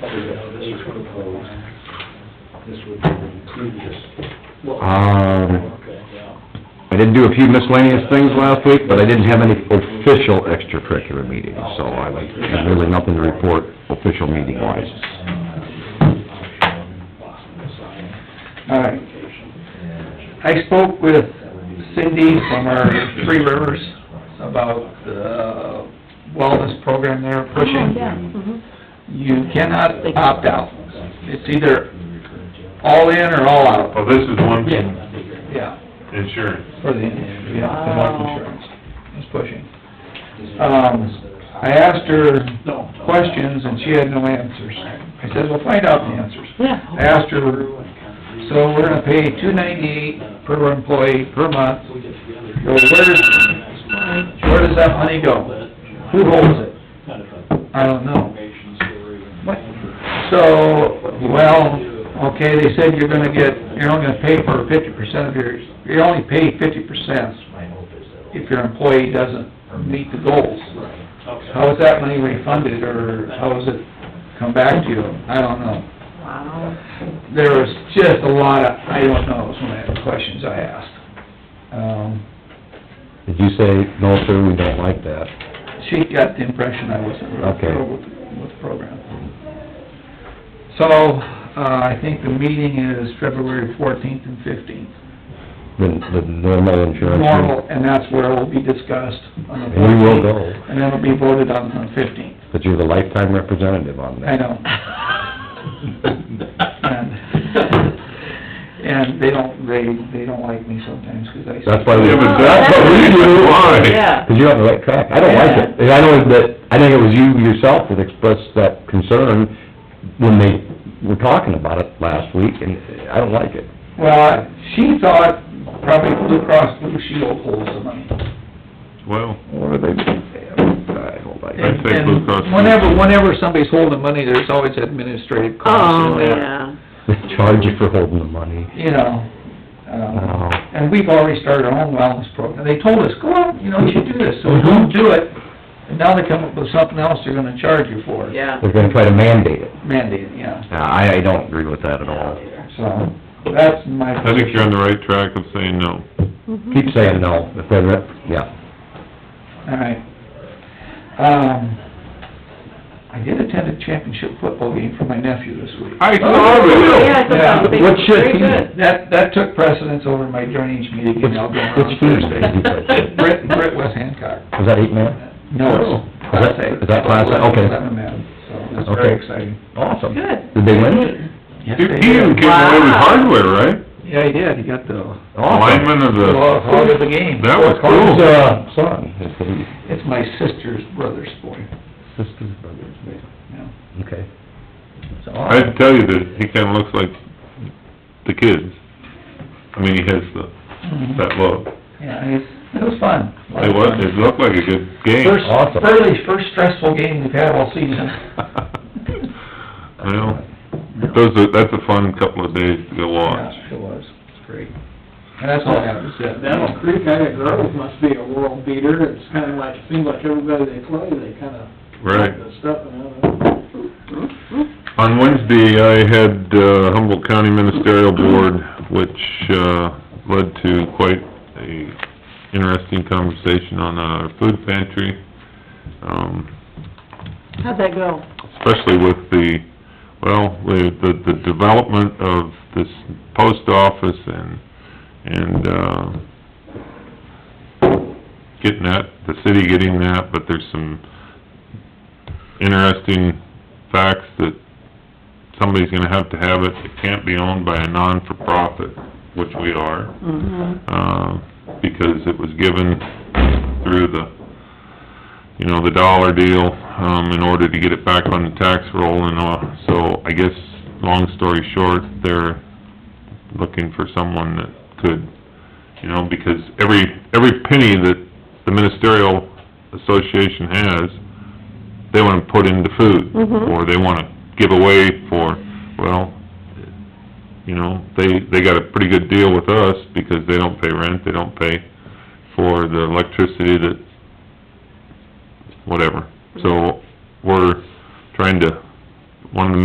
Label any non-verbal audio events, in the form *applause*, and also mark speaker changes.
Speaker 1: So this would close, this would be the previous.
Speaker 2: Um,
Speaker 1: Okay, yeah.
Speaker 2: I did do a few miscellaneous things last week, but I didn't have any official extracurricular meetings, so I have really nothing to report official meeting wise.
Speaker 3: All right. I spoke with Cindy from our Three Rivers about the wellness program they're
Speaker 4: Oh,
Speaker 3: pushing.
Speaker 4: yeah, mhm.
Speaker 3: You cannot opt out. It's either all in or all out.
Speaker 5: Well, this is one,
Speaker 3: Yeah,
Speaker 5: insurance.
Speaker 3: for the, yeah, the health insurance. It's pushing. Um, I asked her questions and she had no answers. I said, well, find out the answers.
Speaker 4: Yeah.
Speaker 3: I asked her So we're gonna pay two ninety-eight per employee per month. Well, where does, where does that money go? Who holds it? I don't know. What? So, well, okay, they said you're gonna get, you're only gonna pay for fifty percent of your, you're only paid fifty percent if your employee doesn't meet the goals. How is that money refunded, or how does it come back to you? I don't know
Speaker 4: Wow.
Speaker 3: there was just a lot of, I don't knows when I had questions I asked. Um,
Speaker 2: Did you say, no, sir, we don't like that?
Speaker 3: she got the impression I wasn't real
Speaker 2: Okay.
Speaker 3: thrilled with, with the program. So, uh, I think the meeting is February fourteenth and fifteenth.
Speaker 2: The, the normal insurance?
Speaker 3: Normal, and that's where it will be discussed on the
Speaker 2: And you
Speaker 3: 14th,
Speaker 2: will go,
Speaker 3: And then it'll be voted on on the fifteenth.
Speaker 2: but you're the lifetime representative on that.
Speaker 3: I know. *laughs* And, and they don't, they, they don't like me sometimes, 'cause I...
Speaker 2: *laughs* That's why we...
Speaker 5: Yeah, but that's what we do, why?
Speaker 4: Yeah.
Speaker 2: Because you're on the right track. I don't like it. And I know that, I think it was you yourself that expressed that concern when they were talking about it last week, and I don't like it.
Speaker 3: Well, she thought probably Blue Cross Blue Shield holds the money.
Speaker 5: Well,
Speaker 2: What are they doing? I don't like it.
Speaker 5: I'd say Blue Cross.
Speaker 3: And Whenever, whenever somebody's holding money, there's always administrative costs
Speaker 4: Oh,
Speaker 3: and that,
Speaker 4: yeah.
Speaker 2: *laughs* They charge you for holding the money.
Speaker 3: you know. um,
Speaker 2: Oh.
Speaker 3: And we've already started our own wellness program. They told us, go out, you know, you should do this, so we don't do it. And now they come up with something else they're gonna charge you for.
Speaker 4: Yeah.
Speaker 2: They're gonna try to mandate it.
Speaker 3: Mandate, yeah.
Speaker 2: Uh, I, I don't agree with that at all.
Speaker 3: So, that's my...
Speaker 5: I think you're on the right track of saying no.
Speaker 4: Mhm.
Speaker 2: Keep saying no, if they're, rep- yeah.
Speaker 3: All right. Um, I did attend a championship football game for my nephew this week.
Speaker 5: I
Speaker 2: Oh,
Speaker 5: saw it.
Speaker 4: Yeah, I thought that was big.
Speaker 2: What should
Speaker 4: Very
Speaker 2: he-
Speaker 4: good.
Speaker 3: That, that took precedence over my drainage meeting, and I'll go on.
Speaker 2: Which Thursday did you play?
Speaker 3: Brett, Brett West Hancock.
Speaker 2: Was that eight man?
Speaker 3: No, it's Class
Speaker 2: Is that-
Speaker 3: A.
Speaker 2: is that Class A? Okay.
Speaker 3: Eleven man, so it's very
Speaker 2: Okay.
Speaker 3: exciting.
Speaker 2: Awesome.
Speaker 4: Good.
Speaker 2: Did they win?
Speaker 3: Yes,
Speaker 5: He
Speaker 3: they
Speaker 5: he even
Speaker 3: did.
Speaker 5: came away with
Speaker 4: Wow.
Speaker 5: hardware, right?
Speaker 3: Yeah, he did, he got the,
Speaker 2: Awesome.
Speaker 5: Lineman of
Speaker 3: the
Speaker 5: the,
Speaker 3: hog of the game.
Speaker 5: that was
Speaker 2: Who's,
Speaker 5: cool.
Speaker 2: uh, son, is the
Speaker 3: It's my sister's brother's boy,
Speaker 2: sister's brother's name?
Speaker 3: yeah.
Speaker 2: Okay.
Speaker 3: It's
Speaker 5: I'd
Speaker 3: awesome.
Speaker 5: tell you that he kinda looks like the kids. I mean, he has the,
Speaker 3: Mhm.
Speaker 5: that look.
Speaker 3: Yeah, it's, it was fun.
Speaker 5: It was, it looked like a good game.
Speaker 3: First,
Speaker 5: *laughs*
Speaker 2: Awesome.
Speaker 3: early, first stressful game we've had all season.
Speaker 5: *laughs* Well, those are, that's a fun couple of days to go watch.
Speaker 3: Yeah, It was, it's great. And that's all I have to say.
Speaker 1: Dental Creek, I think Grove must be a world beater, it's kinda like, seems like everybody they play, they kinda.
Speaker 5: Right.
Speaker 1: The stuff, and,
Speaker 4: Mm-hmm.
Speaker 5: On Wednesday, I had uh, Humboldt County Ministerial Board, which, uh, led to quite a interesting conversation on our food pantry. Um,
Speaker 4: How'd that go?
Speaker 5: especially with the, well, the, the, the development of this post office and, and, uh, getting that, the city getting that, but there's some interesting facts that somebody's gonna have to have it, it can't be owned by a non-for-profit, which we are
Speaker 4: Mm-hmm.
Speaker 5: uh, because it was given through the, you know, the dollar deal, um, in order to get it back on the tax roll and all. So I guess, long story short, they're looking for someone that could, you know, because every, every penny that the ministerial association has, they wanna put into food,
Speaker 4: Mhm.
Speaker 5: or they wanna give away for, well, you know, they, they got a pretty good deal with us because they don't pay rent, they don't pay for the electricity that, whatever. So, we're trying to, one of the